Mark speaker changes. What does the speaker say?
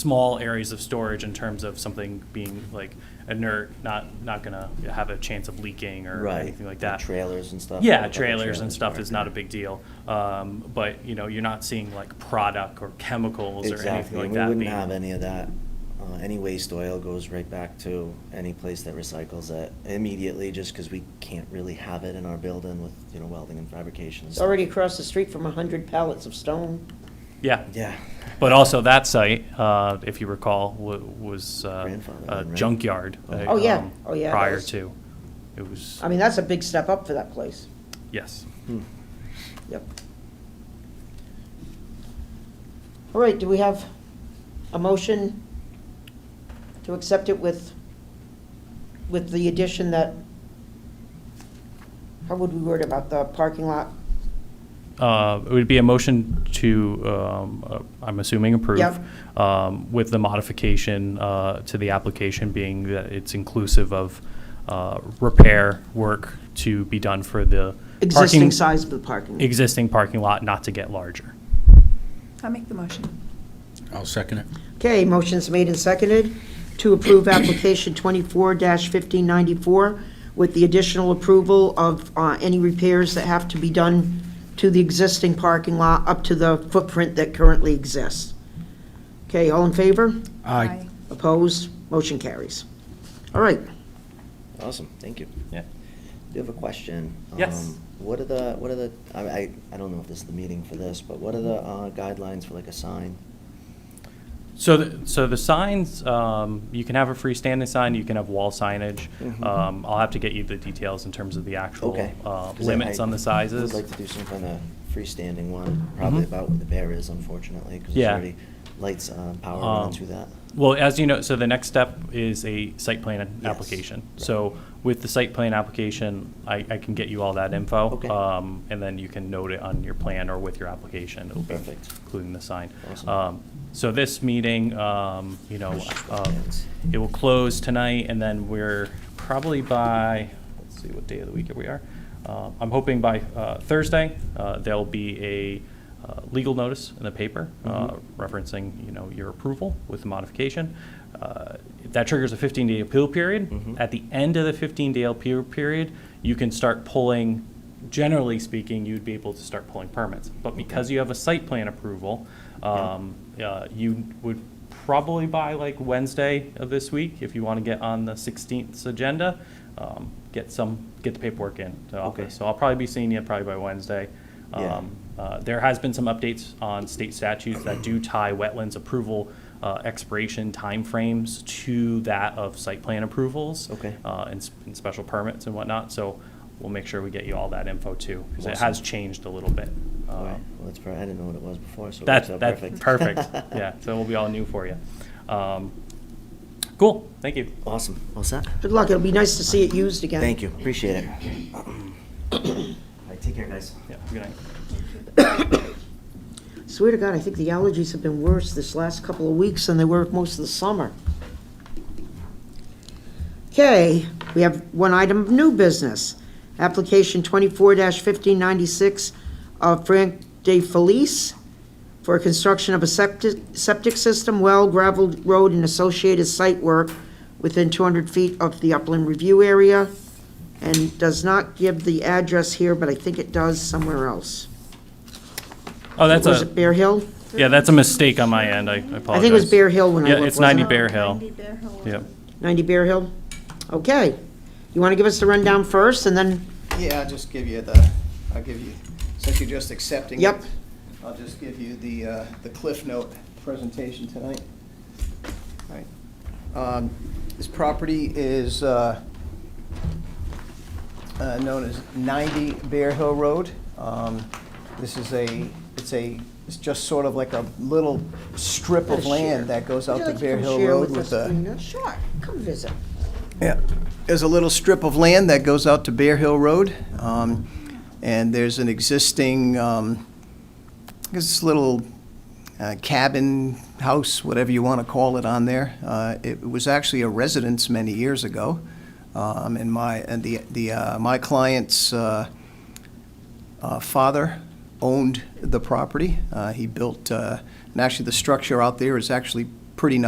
Speaker 1: small areas of storage in terms of something being like inert, not, not gonna have a chance of leaking or
Speaker 2: Right,
Speaker 1: anything like
Speaker 2: like
Speaker 1: that.
Speaker 2: trailers and stuff, like
Speaker 1: Yeah,
Speaker 2: other
Speaker 1: trailers and
Speaker 2: trailers
Speaker 1: stuff
Speaker 2: are,
Speaker 1: is not a
Speaker 2: yeah.
Speaker 1: big deal. Um, but, you know, you're not seeing like product or chemicals or anything
Speaker 2: Exactly,
Speaker 1: like
Speaker 2: and
Speaker 1: that.
Speaker 2: we wouldn't
Speaker 1: being-
Speaker 2: have any of that. Uh, any waste oil goes right back to any place that recycles it immediately, just because we can't really have it in our building with, you know, welding and fabrication and
Speaker 3: It's
Speaker 2: stuff.
Speaker 3: already across the street from a hundred pallets of stone.
Speaker 1: Yeah.
Speaker 2: Yeah.
Speaker 1: But also that site, uh, if you recall, wa- was uh,
Speaker 2: Grandfathered
Speaker 1: a
Speaker 2: in, right?
Speaker 1: junkyard.
Speaker 2: Oh.
Speaker 1: uh,
Speaker 3: Oh, yeah.
Speaker 1: um,
Speaker 3: Oh, yeah, it
Speaker 1: Prior
Speaker 3: was.
Speaker 1: to, it was,
Speaker 3: I mean, that's a big step up for that place.
Speaker 1: yes.
Speaker 2: Hmm.
Speaker 3: Yep. All right, do we have a motion to accept it with, with the addition that, how would we word about the parking lot?
Speaker 1: Uh, It would be a motion to, um, uh, I'm assuming, approve.
Speaker 3: Yep.
Speaker 1: um, With the modification uh, to the application being that it's inclusive of uh, repair work to be done for the.
Speaker 3: Existing
Speaker 1: parking-
Speaker 3: size of the parking.
Speaker 1: Existing parking lot not to get larger.
Speaker 4: I make the motion.
Speaker 5: I'll second it.
Speaker 3: Okay, motion's made and seconded to approve application twenty-four fifteen ninety-four with the additional approval of uh, any repairs that have to be done to the existing parking lot up to the footprint that currently exists. Okay, all in favor?
Speaker 5: Aye.
Speaker 3: Opposed? Motion carries. All right.
Speaker 2: Awesome, thank you.
Speaker 1: Yeah.
Speaker 2: Do you have a question?
Speaker 1: Yes.
Speaker 2: Um, What are the, what are the, I, I, I don't know if this is the meeting for this, but what are the uh, guidelines for like a sign?
Speaker 1: So, the- so the signs, um, you can have a freestanding sign, you can have wall signage.
Speaker 2: Mhm.
Speaker 1: Um, I'll have to get you the details in terms of the actual
Speaker 2: Okay.
Speaker 1: uh,
Speaker 2: 'Cause I-
Speaker 1: limits on the sizes.
Speaker 2: I would like to do some kind of freestanding one, probably
Speaker 1: Mhm.
Speaker 2: about what the bear is unfortunately, because there's
Speaker 1: Yeah.
Speaker 2: already lights, uh,
Speaker 1: Um,
Speaker 2: power running through that.
Speaker 1: Well, as you know, so the next step is a site plan
Speaker 2: Yes.
Speaker 1: application. So with the site plan application, I, I can get you all that info.
Speaker 2: Okay.
Speaker 1: Um, and then you can note it on your plan or with your application. It'll be
Speaker 2: Perfect.
Speaker 1: Including the sign.
Speaker 2: Awesome.
Speaker 1: Um, So this meeting, um, you know, um,
Speaker 2: Yes.
Speaker 1: it will close tonight and then we're probably by, let's see what day of the week we are. Uh, I'm hoping by, uh, Thursday, uh, there'll be a, uh, legal notice in the paper, uh,
Speaker 2: Mhm.
Speaker 1: referencing, you know, your approval with the modification. Uh, if That triggers a 15-day appeal period.
Speaker 2: Mhm.
Speaker 1: At the end of the 15-day appeal period, you can start pulling, generally speaking, you'd be able to start pulling permits. But because you have a site plan approval, um, uh, you would probably by like Wednesday of this week, if you want to get on the 16th's agenda, um, get some, get the paperwork in to
Speaker 2: Okay.
Speaker 1: office. So I'll probably be seeing you probably by Wednesday.
Speaker 2: Yeah.
Speaker 1: Um, uh, There has been some updates on state statutes that do tie wetlands approval uh, expiration timeframes to that of site plan approvals.
Speaker 2: Okay.
Speaker 1: uh, And s- and special permits and whatnot, so we'll make sure we get you all that info too, because it
Speaker 2: Awesome.
Speaker 1: has changed a little bit.
Speaker 2: All
Speaker 1: Uh,
Speaker 2: right, well, that's, per- I didn't know what it was before, so it
Speaker 1: That's,
Speaker 2: works out
Speaker 1: that's
Speaker 2: perfect.
Speaker 1: perfect, yeah, so it'll be all new for you. Um, Cool, thank you.
Speaker 2: Awesome, all set?
Speaker 3: Good luck. It'll be nice to see it used again.
Speaker 2: Thank you, appreciate it. All right, take care, guys.
Speaker 1: Yeah, good night.
Speaker 3: Swear to God, I think the allergies have been worse this last couple of weeks than they were most of the summer. Okay, we have one item of new business. Application twenty-four fifteen ninety-six of Frank De Felice for construction of a septic, septic system, well, gravel road, and associated site work within two hundred feet of the upland review area, and does not give the address here, but I think it does somewhere else.
Speaker 1: Oh, that's
Speaker 3: Was it
Speaker 1: a,
Speaker 3: Bear Hill?
Speaker 1: yeah, that's a mistake on my end, I I apologize.
Speaker 3: I think it was Bear Hill when I
Speaker 1: Yeah,
Speaker 3: looked,
Speaker 1: it's 90
Speaker 3: wasn't
Speaker 1: Bear Hill,
Speaker 4: Ninety Bear Hill.
Speaker 1: yep.
Speaker 3: 90 Bear Hill? Okay. You want to give us the rundown first, and then,
Speaker 6: Yeah, I'll just give you the, I'll give you, since you're just accepting it.
Speaker 3: Yep.
Speaker 6: I'll just give you the, uh, the Cliff Note presentation tonight. All right. Um, This property is uh, uh, known as 90 Bear Hill Road. Um, This is a, it's a, it's just sort of like a little strip of land that goes
Speaker 3: Would
Speaker 6: out
Speaker 3: you
Speaker 6: to
Speaker 3: like to
Speaker 6: Bear
Speaker 3: come
Speaker 6: Hill
Speaker 3: share
Speaker 6: Road with
Speaker 3: us,
Speaker 6: a.
Speaker 3: Lena? Sure, come visit.
Speaker 6: Yeah, there's a little strip of land that goes out to Bear Hill Road, um, and there's an existing, um, this little uh, cabin, house, whatever you want to call it on there. Uh, It was actually a residence many years ago, um, and my, and the, the, uh, my client's uh, uh, father owned the property. Uh, He built, uh, and actually, the structure out there is actually pretty nice